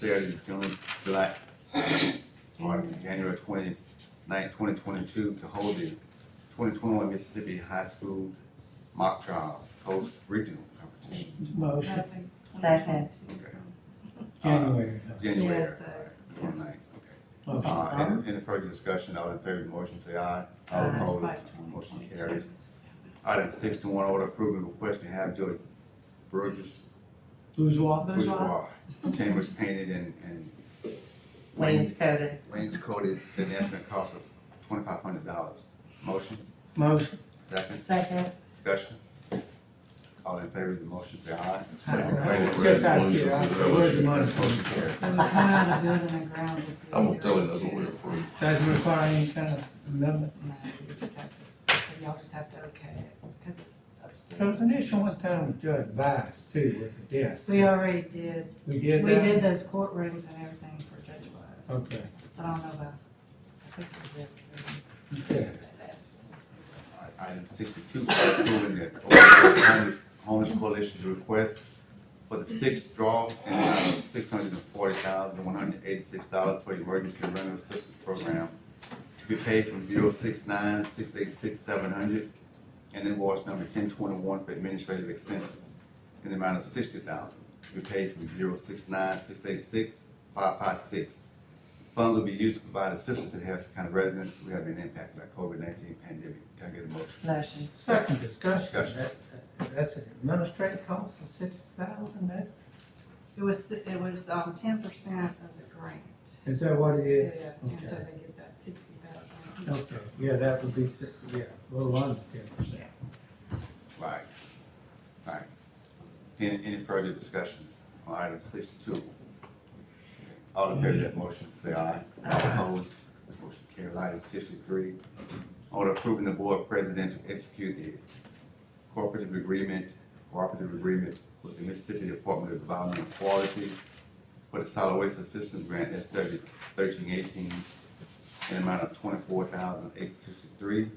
period June, July, or January twenty ninth, twenty twenty-two to hold the twenty twenty-one Mississippi High School mock trial post regional competition. Motion, Second. Okay. Uh, January. January, Yes, sir. twenty ninth, okay. Motion. Uh, any, any further discussion, all in favor of the motion, say aye. All Aye. opposed, motion carries. Item six to one, order approving request to have George Burgess Bourgeois, Bourgeois chambers painted and, and Wainscoting. wainscoted at an estimate cost of twenty-five hundred dollars. Motion, motion, second, Second. discussion. All in favor of the motion, say aye. Aye. All opposed, Yes, I did. I- where's the money? Motion carries. It was one of the building and grounds. I'm gonna tell you that's what we approved. doesn't require any kind of amendment. No, you just have to- Y'all just have to okay it, because it's upstairs. There was an issue one time with Judge Bias too, with the desk. We already did, We we did that? Oh. did those courtrooms and everything for Judge Wise, Okay, but I don't know about, I think it was everything okay. that last one. All right, Item sixty-two, approving the Oklahoma homeless, homeless coalition's request for the sixth draw in the amount of six hundred and forty thousand, one hundred and eighty-six dollars for the emergency rental assistance program to be paid from zero six nine, six eight six, seven hundred, and invoice number ten twenty-one for administrative expenses in the amount of sixty thousand, to be paid from zero six nine, six eight six, five five six. Funds will be used to provide assistance to Harrison County residents who have been impacted by COVID-19 pandemic. Can I get a motion? Motion. Second discussion, Discussion. that, that- that's an administrative cost of six thousand, that, It was, it was, um, ten percent of the grant. is that what it is? Yeah, and so they get that sixty thousand. Okay, yeah, that would be, si- yeah, a little under ten percent. Right. Right. Any, any further discussions on item sixty-two? All in favor of that motion, say aye. All opposed, motion carries. Item sixty-three, order approving the board president to execute the cooperative agreement, cooperative agreement with the Mississippi Department of Environmental Quality for the solid waste assistance grant S thirty, thirteen eighteen, in amount of twenty-four thousand eight sixty-three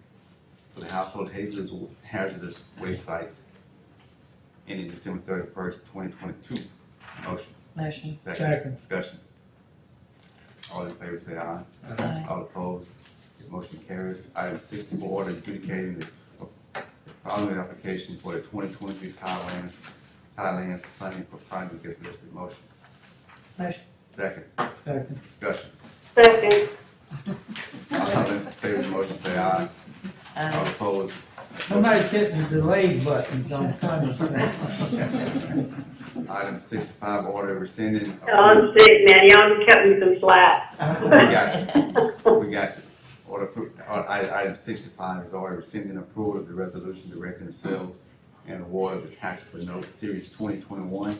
for the household hazards, hazardous waste site ending December thirty-first, twenty twenty-two. Motion, Motion. second, Second. discussion. All in favor say aye. Uh, All opposed, the motion carries. Item sixty-four, order adjudicating the following application for the twenty twenty-three Thailand's, Thailand's funding for project as listed. Motion, Motion. second, Second, discussion. Second, All in favor of the motion say aye. All opposed. somebody's hitting the delay buttons on Congress. Item sixty-five, order rescinding. I'm sick, man, y'all just cut me some slack. We got you, we got you. Order, appro- uh, item, item sixty-five is order rescinding approval of the resolution directing the sale and award of the taxable note series twenty twenty-one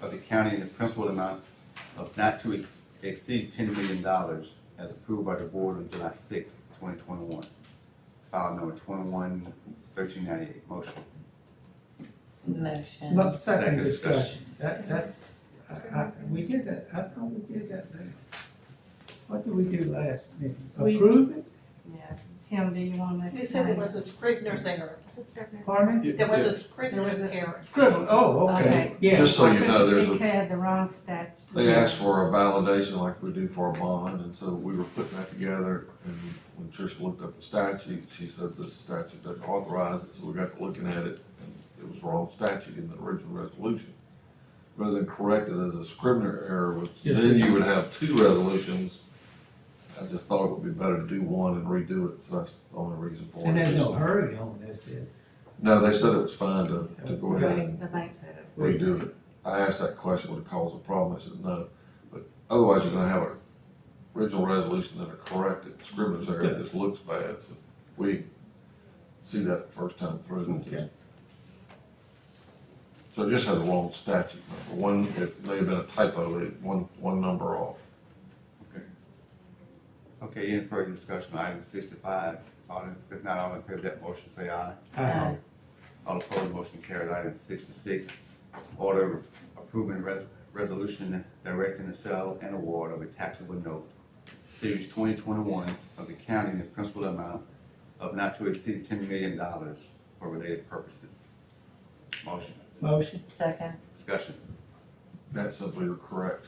of the county in the principal amount of not to ex- exceed ten million dollars as approved by the board on July sixth, twenty twenty-one. File number twenty-one thirteen ninety-eight, motion. Motion. Second Look, second discussion. discussion, that, that, I, I, we did that, I thought we did that last. What did we do last meeting? We- Approve it, Yeah, Tim, do you want to? They said it was a Scrivener's error. pardon me? There was a There was Scrivener's a- error. Scribble, oh, okay, Okay. yeah. Just so you okay. know, there's It a, had the wrong statute. they asked for a validation like we do for a bond, and so we were putting that together. And when Trish looked up the statute, she said this statute doesn't authorize it, so we got to looking at it, and it was wrong statute in the original resolution. Rather than correct it as a Scrivener error, which Yes, then sir. you would have two resolutions. I just thought it would be better to do one and redo it, so that's the only reason for it. And there's no hurry on this, is, No, they said it was fine to, to go ahead and The bank said it. redo it. I asked that question, would it cause a problem? I said, no. But otherwise, you're gonna have an original resolution that are corrected, scrimmage error that just looks bad. So We see that the first time through. Okay. So it just has a wrong statute number. One, it may have been a typo, it, one, one number off. Okay, any further discussion on item sixty-five? All in, if not all in favor of that motion, say aye. uh, All opposed, motion carried. Item sixty-six, order approving res- resolution directing the sale and award of a taxable note, series twenty twenty-one of the county in the principal amount of not to exceed ten million dollars for related purposes. Motion, motion, Second. discussion. That simply corrects